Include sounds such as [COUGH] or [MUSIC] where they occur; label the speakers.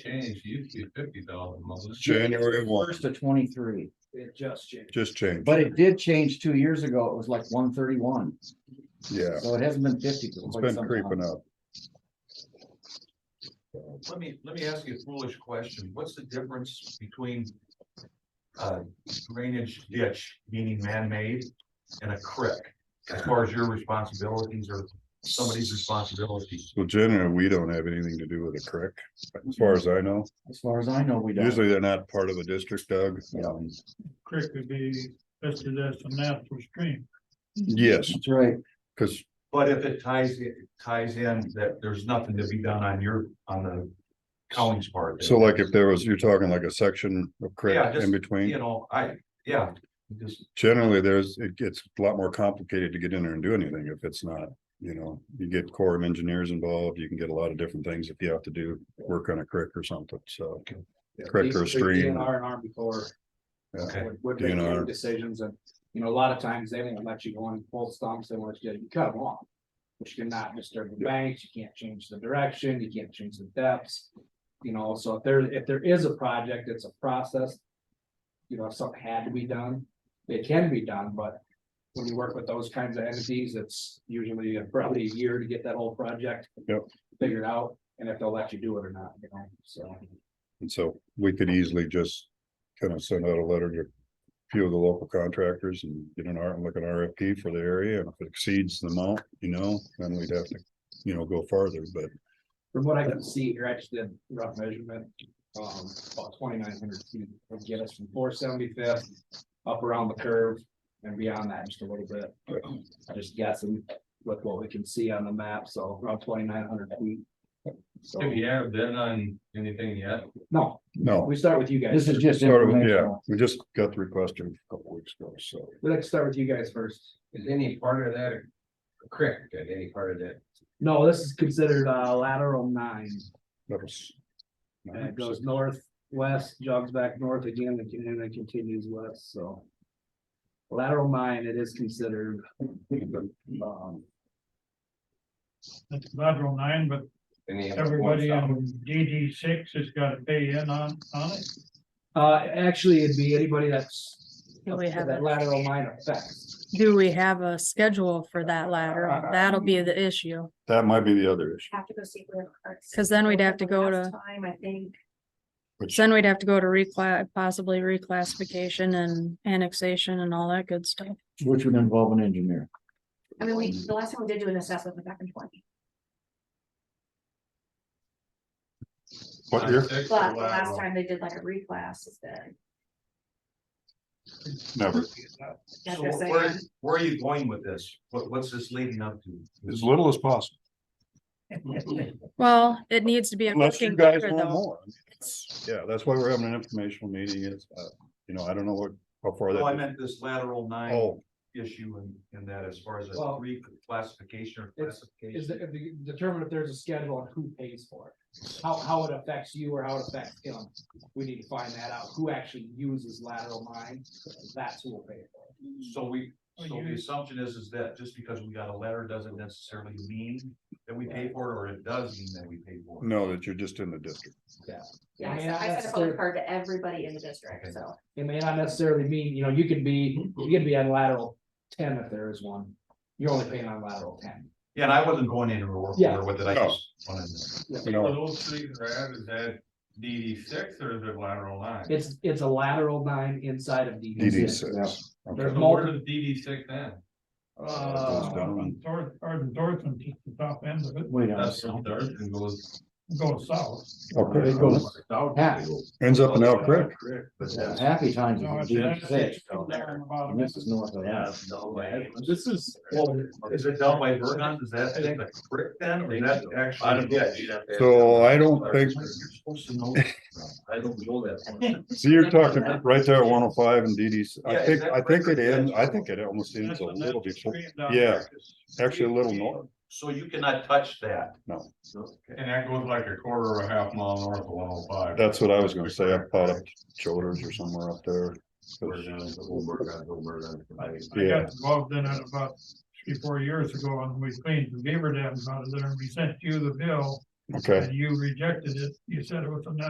Speaker 1: change, you used to be fifty thousand.
Speaker 2: January one,
Speaker 3: First to twenty-three,
Speaker 4: It just changed.
Speaker 2: just change,
Speaker 3: but it did change two years ago. It was like one thirty-one,
Speaker 2: yeah,
Speaker 3: so it hasn't been fifty. for
Speaker 2: it's
Speaker 3: quite
Speaker 2: been
Speaker 3: some
Speaker 2: creeping
Speaker 3: time.
Speaker 2: up.
Speaker 1: Let me, let me ask you a foolish question. What's the difference between uh, drainage ditch, meaning man-made, and a creek? As far as your responsibilities or somebody's responsibilities?
Speaker 2: So generally, we don't have anything to do with a creek, as far as I know.
Speaker 3: As far as I know, we don't.
Speaker 2: Usually they're not part of a district, Doug.
Speaker 3: Mm-hmm.
Speaker 2: Um,
Speaker 5: creek would be listed as a natural stream.
Speaker 2: Yes,
Speaker 3: That's right.
Speaker 2: because
Speaker 1: But if it ties, it ties in that there's nothing to be done on your, on the county's part.
Speaker 2: so like if there was, you're talking like a section of creek
Speaker 1: Yeah, just,
Speaker 2: in between.
Speaker 1: You know, I, yeah, just,
Speaker 2: Generally, there's, it gets a lot more complicated to get in there and do anything if it's not, you know, you get Corps of Engineers involved, you can get a lot of different things if you have to do work on a creek or something, so. Creek or stream,
Speaker 4: DNR and Army Corps
Speaker 1: okay.
Speaker 4: would, would make
Speaker 2: DNR.
Speaker 4: their decisions and, you know, a lot of times they won't let you go on full stumps, they want you to cut them off. Which cannot disturb the banks, you can't change the direction, you can't change the depths. You know, so if there, if there is a project, it's a process. You know, if something had to be done, it can be done, but when you work with those kinds of entities, it's usually probably a year to get that whole project.
Speaker 2: Yep.
Speaker 4: Figured out, and if they'll let you do it or not, you know, so.
Speaker 2: and so we could easily just kind of send out a letter to. a Few of the local contractors and get an R, like an RFP for the area, and if it exceeds the amount, you know, then we'd have to, you know, go farther, but.
Speaker 4: From what I can see here, I just did rough measurement, um, about twenty-nine hundred feet would get us from four seventy-fifth up around the curve and beyond that just a little bit. I just guessing with what we can see on the map, so around twenty-nine hundred feet. So,
Speaker 1: Have you ever been on anything yet?
Speaker 4: no,
Speaker 2: No,
Speaker 4: we start with you guys.
Speaker 3: This is just
Speaker 2: started with- yeah,
Speaker 3: informational.
Speaker 2: we just got the request a couple weeks ago, so.
Speaker 4: We like to start with you guys first.
Speaker 6: Is any part of that a creek, and any part of that?
Speaker 4: No, this is considered uh, lateral nine.
Speaker 2: That was.
Speaker 4: And it goes northwest, jogs back north again, and then it continues west, so. Lateral nine, it is considered. Um,
Speaker 5: That's lateral nine, but
Speaker 6: Any of it?
Speaker 5: everybody on DD six has got to pay in on, on it.
Speaker 4: uh, actually, it'd be anybody that's.
Speaker 7: Do we have
Speaker 4: That
Speaker 7: a-
Speaker 4: lateral nine
Speaker 7: [LAUGHS]
Speaker 4: affects.
Speaker 7: Do we have a schedule for that lateral?
Speaker 4: Uh,
Speaker 7: That'll be the issue,
Speaker 2: That might be the other issue,
Speaker 8: have to go see where. our-
Speaker 7: because then we'd have to go
Speaker 8: Last
Speaker 7: to,
Speaker 8: Time, I think,
Speaker 2: which
Speaker 7: then we'd have to go to reclass, possibly reclassification and annexation and all that good stuff.
Speaker 3: Which would involve an engineer.
Speaker 8: I mean, we, the last time we did do an assessment was back in twenty,
Speaker 2: what year?
Speaker 1: Six or
Speaker 8: but the
Speaker 1: lateral?
Speaker 8: last time they did like a reclass is that.
Speaker 2: Never,
Speaker 8: that's
Speaker 1: So
Speaker 8: what I'm
Speaker 1: where,
Speaker 8: saying.
Speaker 1: where are you going with this? What, what's this leading up to?
Speaker 2: as little as possible,
Speaker 7: Well, it needs to be a
Speaker 2: unless you
Speaker 7: cooking
Speaker 2: guys
Speaker 7: picture
Speaker 2: want
Speaker 7: though.
Speaker 2: more. Yeah, that's why we're having an informational meeting is, uh, you know, I don't know what, how
Speaker 4: Oh,
Speaker 2: far
Speaker 1: No, Oh, I
Speaker 2: that.
Speaker 1: meant this lateral nine
Speaker 2: Oh,
Speaker 1: issue and, and that as far as a
Speaker 4: Well,
Speaker 1: reclassification or
Speaker 4: it's- Is
Speaker 1: classification.
Speaker 4: that, if you determine if there's a schedule on who pays for it, how, how it affects you or how it affects him. We need to find that out, who actually uses lateral nine, that's who will pay for it. Oh,
Speaker 1: So we, so the
Speaker 5: You-
Speaker 1: assumption is, is that just because we got a letter doesn't necessarily mean that we pay for it, or it does mean that we pay for it.
Speaker 2: no, that you're just in the district.
Speaker 8: Yeah, I
Speaker 4: May
Speaker 8: sent-
Speaker 4: not
Speaker 8: I sent a phone
Speaker 4: necessarily-
Speaker 8: card to everybody in the district, so.
Speaker 4: It may not necessarily mean, you know, you could be, you could be on lateral ten if there is one. You're only paying on lateral ten.
Speaker 1: Yeah, and I wasn't going in or
Speaker 4: Yeah.
Speaker 1: with it, I
Speaker 2: No.
Speaker 1: just wanted to.
Speaker 2: No,
Speaker 1: those three grabbed, is that DD six or is it lateral nine?
Speaker 4: It's, it's a lateral nine inside of
Speaker 2: DD
Speaker 4: DD.
Speaker 2: six.
Speaker 4: There's
Speaker 2: Okay.
Speaker 4: multiple,
Speaker 1: DD six then?
Speaker 2: Goes
Speaker 4: uh,
Speaker 2: down.
Speaker 5: North, or the north and just the top end of it
Speaker 3: We don't.
Speaker 1: and goes.
Speaker 5: goes south.
Speaker 2: Okay.
Speaker 3: It goes-
Speaker 1: Yeah.
Speaker 2: Ends up in Elk Creek.
Speaker 1: But
Speaker 3: Yeah,
Speaker 1: that's-
Speaker 3: Happy times.
Speaker 5: No,
Speaker 3: with
Speaker 5: it's-
Speaker 3: DD six
Speaker 5: it's
Speaker 3: down
Speaker 5: down
Speaker 3: there.
Speaker 5: about a
Speaker 3: And This is north of
Speaker 1: Yeah,
Speaker 3: that.
Speaker 1: it's no way.
Speaker 4: This is,
Speaker 1: Well, is it down by Vernon? Is that thing a creek then, or is that actually?
Speaker 6: I don't- yeah, you'd have to-
Speaker 2: So uh, I don't think,
Speaker 1: You're supposed to know. that.
Speaker 6: I don't know that.
Speaker 2: see, you're talking right there, one oh five and DD,
Speaker 1: Yeah,
Speaker 2: I
Speaker 1: is
Speaker 2: think,
Speaker 1: that
Speaker 2: I think
Speaker 1: right?
Speaker 2: it ends, I think it almost ends a little before, yeah. actually a little north.
Speaker 1: [LAUGHS] So you cannot touch that?
Speaker 2: No.
Speaker 1: And that goes like a quarter or a half mile north of one oh five.
Speaker 2: That's what I was gonna say, I thought up Choders or somewhere up there.
Speaker 5: I
Speaker 2: Yeah.
Speaker 5: got involved in it about three, four years ago and we cleaned the beaver dams out of there and we sent you the bill
Speaker 2: Okay.
Speaker 5: And you rejected it, you said it was a no.